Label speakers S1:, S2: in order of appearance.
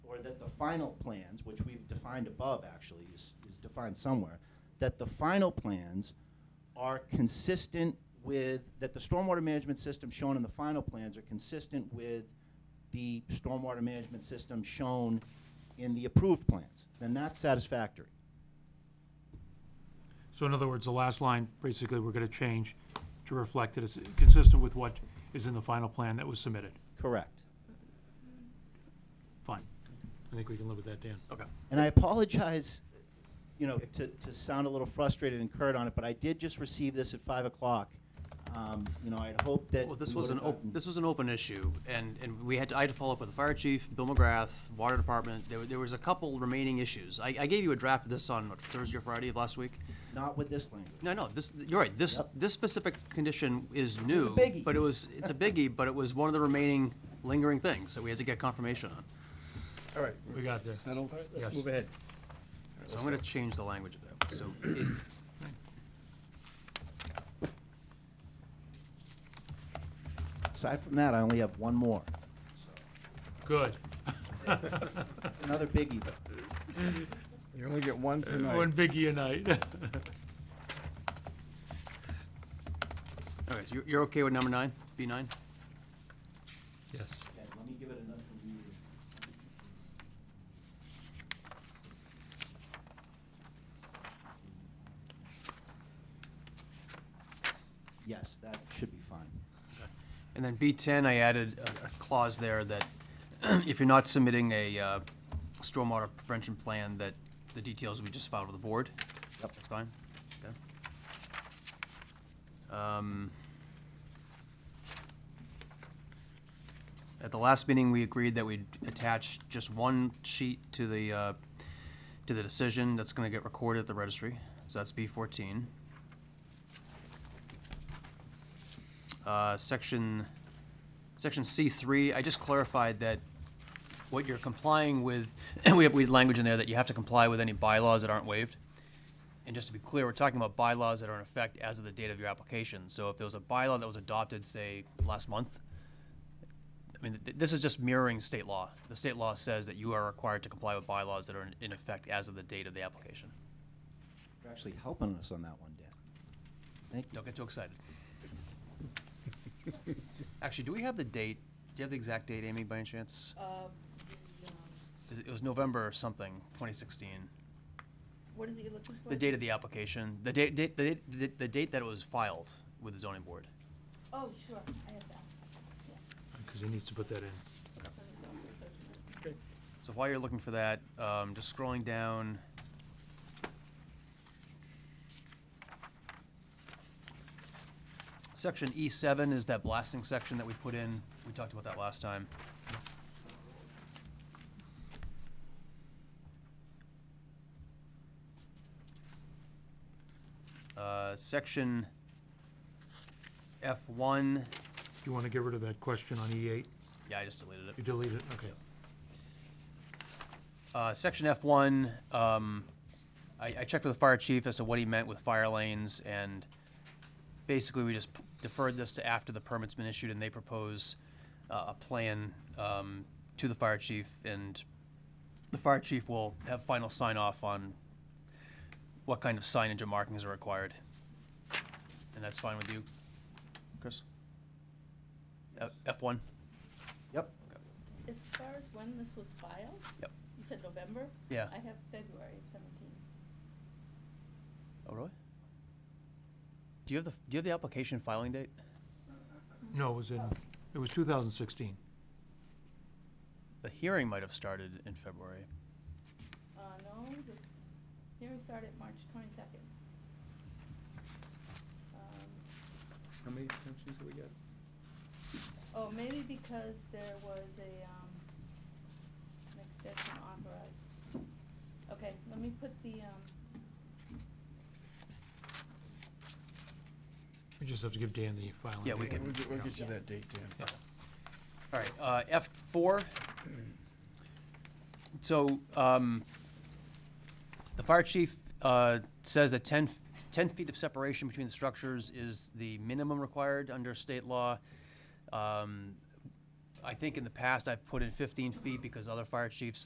S1: final plans, which we've defined above actually, is, is defined somewhere, that the final plans are consistent with, that the stormwater management system shown in the final plans are consistent with the stormwater management system shown in the approved plans, then that's satisfactory.
S2: So in other words, the last line, basically, we're gonna change to reflect that it's consistent with what is in the final plan that was submitted.
S1: Correct.
S2: Fine. I think we can live with that, Dan. Okay.
S1: And I apologize, you know, to, to sound a little frustrated and curt on it, but I did just receive this at five o'clock. Um, You know, I'd hoped that.
S3: Well,
S1: we
S3: this was an,
S1: would've
S3: op-
S1: gotten-
S3: this was an open issue, and, and we had, to- I had to follow up with the fire chief, Bill McGrath, water department, there, were- there was a couple remaining issues. I, I gave you a draft of this on what, Thursday or Friday of last week.
S1: Not with this language.
S3: No, no, this, you're right, this,
S1: Yep.
S3: this specific condition is new.
S1: biggie.
S3: But it was, it's a biggie, but it was one of the remaining lingering things that we had to get confirmation on.
S4: All right,
S2: We got there.
S4: settled?
S2: Yes.
S4: Let's move ahead.
S3: So I'm gonna change the language of that, so it's,
S1: Aside from that, I only have one more.
S2: Good.
S1: It's another biggie.
S4: You only get one
S2: One E
S4: tonight.
S2: biggie a night.
S3: all right, so you're, you're okay with number nine, B nine?
S2: Yes.
S1: Okay, Let me give it another read. Yes, that should be fine.
S3: And then B10, I added a- a clause there that if you're not submitting a uh, stormwater prevention plan, that the details we just filed with the board.
S1: Yep.
S3: That's fine. Okay. Um, At the last meeting, we agreed that we'd attach just one sheet to the, uh, to the decision that's going to get recorded at the registry. So that's B14. Uh, Section, section C3, I just clarified that what you're complying with, we have, we had language in there that you have to comply with any bylaws that aren't waived. And just to be clear, we're talking about bylaws that are in effect as of the date of your application. So if there was a bylaw that was adopted, say, last month, I mean, th- this is just mirroring state law. The state law says that you are required to comply with bylaws that are in- in effect as of the date of the application.
S1: You're actually helping us on that one, Dan. Thank you.
S3: Don't get too excited. Actually, do we have the date? Do you have the exact date, Amy, by any chance?
S5: Uh, the, um,
S3: Is It it was November or something, 2016.
S5: What is it you're looking for?
S3: The date of the application, the date, date- the date, the- the date that it was filed with the zoning board.
S5: Oh, sure, I have that. Yeah,
S2: Because he needs to put that in.
S5: that's on the zoning search.
S3: So while you're looking for that, um, just scrolling down. Section E seven is that blasting section that we put in. We talked about that last time. Uh, section F one,
S2: Do you want to get rid of that question on E8?
S3: yeah, I just deleted it.
S2: You delete it, okay.
S3: Uh, Section F1, um, I I checked with the fire chief as to what he meant with fire lanes, and basically, we just p- deferred this to after the permit's been issued, and they propose uh, a plan um, to the fire chief, and the fire chief will have final sign-off on what kind of signage and markings are required. And that's fine with you, Chris? F- F1?
S1: Yep.
S5: As far as when this was filed?
S3: Yep.
S5: You said November?
S3: Yeah.
S5: I have February of seventeen.
S3: Oh, really? Do you have the, do you have the application filing date?
S2: No, it was in, it was 2016.
S3: The hearing might have started in February.
S5: Uh, no, the hearing started March twenty-second. Um,
S4: How many extensions do we get?
S5: Oh, maybe because there was a, um, an extension authorized. Okay, let me put the, um,
S2: We just have to give Dan the filing.
S3: Yeah, we
S2: date.
S3: can-
S4: We'll get- We'll get you
S5: Yeah.
S4: that date, Dan.
S3: All right, uh, F four. So, um, the fire chief, uh, says that 10 f- 10 feet of separation between the structures is the minimum required under state law. Um, I think in the past, I've put in fifteen feet because other fire chiefs